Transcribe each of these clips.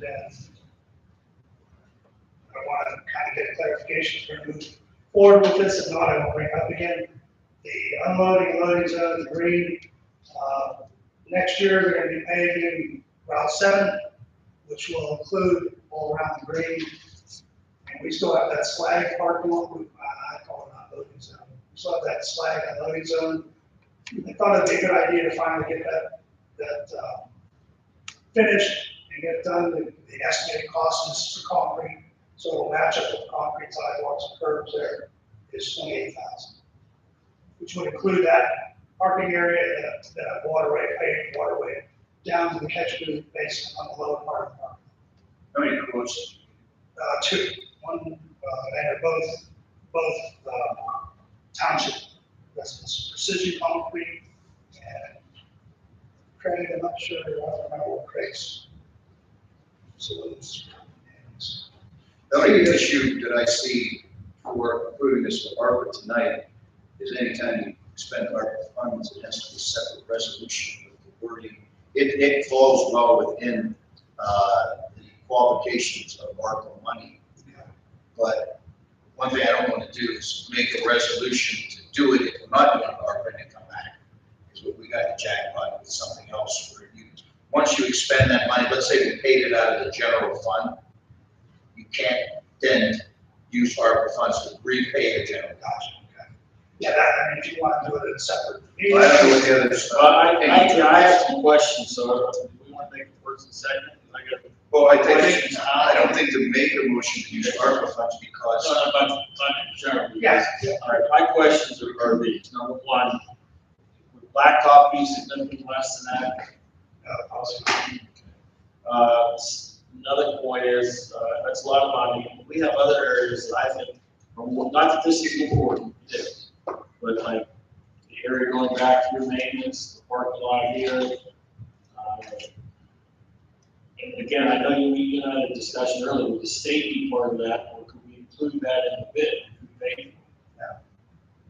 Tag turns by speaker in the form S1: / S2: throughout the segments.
S1: that's, I want to kind of get clarification to move forward with this, if not, I will bring up again the unloading, loading zone, the green. Uh, Next year, they're going to be paving Route 7, which will include all around the green. And we still have that slag parking lot, we- I I call it not loading zone, we still have that slag unloading zone. I thought it'd be a good idea to finally get that, that uh, finished and get done, the the estimated cost is for concrete, so it'll match up with concrete sidewalks and curbs there, is 28,000 which would include that parking area, that, that waterway, paved waterway, down to the catch basin on the lower part of the park.
S2: How many quotes?
S1: Uh, two, one, uh, and they're both, both, uh, township residents, precision concrete and Craig, I'm not sure, I don't remember what Craig's. Facilities. is.
S2: The only issue that I see for approving this with ARPA tonight is anytime you expend ARPA funds, it has to be a separate resolution with the wording. It, it falls well within, uh, the qualifications of ARPA money. But one thing I don't want to do is make a resolution to do it if we're not doing ARPA and it come back. Is what we got to jackpot with something else where you, once you expend that money, let's say we paid it out of the general fund, you can't then use ARPA funds to repay the general.
S1: Gotcha, okay. Yeah, that, I mean, if you want to do it in separate.
S2: I don't know what the other
S3: Well,
S2: stuff.
S3: Uh, I, I, I have some questions, so if we want to make it first and second, and I got.
S2: Well, I
S3: Questions?
S2: think, I don't think to make a motion to use ARPA funds
S3: That's
S2: because,
S3: not about, about general.
S1: Yes, yeah.
S3: All right, my questions are, are these. Number one, would blacktop be significantly less than that?
S1: Uh, policy.
S3: Uh, s- Another point is, uh, that's a lot of money. We have other areas that I think, are more- not that this is important, it is, but like the area going back through maintenance, the parking lot here. uh, And again, I know you, you and I had a discussion earlier with the safety part of that, or could we include that in the bid? Could we make it?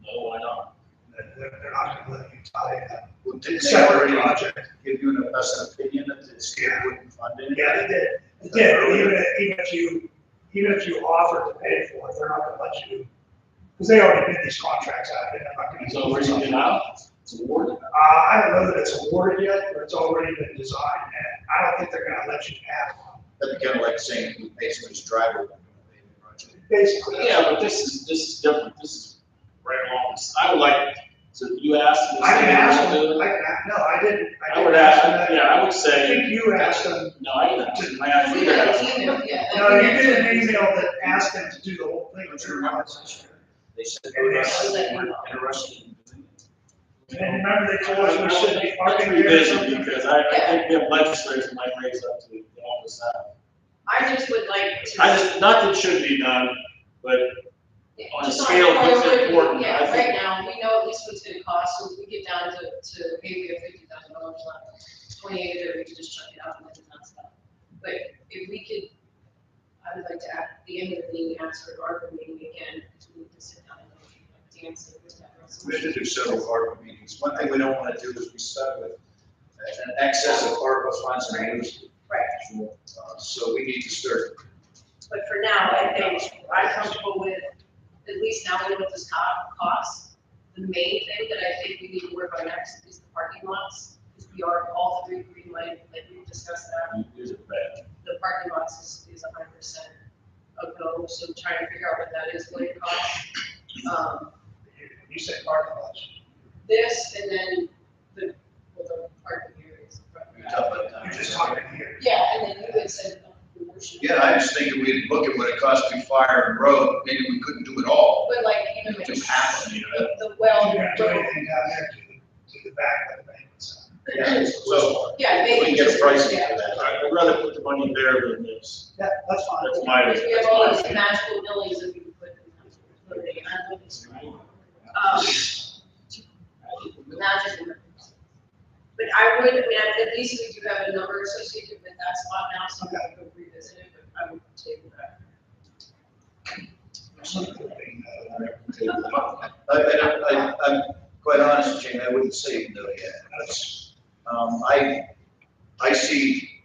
S3: No, why not?
S1: They're, they're- they're not gonna let you tie that.
S2: well, didn't
S1: It's
S2: they already
S1: project.
S2: give you an best opinion that the state wouldn't fund it?
S1: Yeah, they did, they did, even if, even if you, even if you offer to pay for it, they're not gonna let you. Because they already did these contracts out, and they're not gonna.
S3: So we're gonna get out, it's awarded.
S1: Uh, I don't know that it's awarded yet, but it's already been designed, and I don't think they're gonna let you have one.
S2: That'd be kind of like saying we pay somebody's driver. when we pay the project.
S1: Basically.
S3: Yeah, but this is, this is different, this is right along, this- I would like, so you asked. me-
S1: I can ask them, I can, ask- no, I didn't.
S3: I would
S1: didn't
S3: ask,
S1: them
S3: them, yeah, I would
S1: that. I
S3: say,
S1: think you asked them,
S3: no, I didn't, ask them. I asked you.
S1: no, you did an email that asked them to do the whole thing, which you're not.
S2: They said
S1: And they
S2: they
S4: said-
S2: were interested in doing it.
S1: And remember they told us we shouldn't be
S3: Let's
S1: parking here. or
S3: revisit,
S1: something?
S3: because I, I think the legislators might raise up to the office.
S4: I just would like to.
S3: I just, nothing should be done, but on a
S4: Just
S3: scale, what's
S4: priority,
S3: important, I
S4: Yeah, right
S3: think-
S4: now, we know at least what it's gonna cost, so if we get down to, to maybe a fifty thousand dollars left, twenty-eight, or we can just chuck it out and let it not stop. But if we could, I would like to, at the end of the meeting, ask for ARPA meeting again, because we need to sit down and like, dance and do that
S2: We have
S4: resolution.
S2: to do several ARPA meetings. One thing we don't want to do is be stuck with an excess of ARPA funds and use.
S4: Right.
S2: Uh, So we need to start.
S4: But for now, I think I'm comfortable with, at least now we know what this co- costs. The main thing that I think we need to work on next is the parking lots, because we are all three green light, like we discussed that.
S3: Is it bad?
S4: The parking lots is, is a hundred percent of no, so trying to figure out what that is, what it costs. Um,
S1: You said parking lots.
S4: this and then the, well, the parking areas.
S1: You're just talking here.
S4: Yeah, and then you had said. uh, promotion.
S2: Yeah, I was thinking we'd look at what it costs to fire and road, maybe we couldn't do it all.
S4: But like, even
S2: It
S4: with
S2: just happened, you know?
S4: the, the well,
S1: You're not doing
S4: road-
S1: anything down there to, to the back of the bank. so.
S2: Yeah, So
S4: yeah,
S2: we
S4: maybe.
S2: can get
S4: just-
S2: a pricing
S4: yeah.
S2: for that.
S3: uh, I'd rather put the money there than this,
S1: Yeah, that's fine.
S3: that's my,
S4: Because
S3: that's
S4: we have all
S3: my
S4: these
S3: opinion.
S4: magical buildings that we can put in. they are not described. Um, Magic. numbers. But I would, I mean, at least we do have a number associated with that spot now, so I'm gonna go revisit it, but I would table that.
S2: I, I don't, I, I'm quite honest, Jamie, I wouldn't say no yet. That's, um, I, I see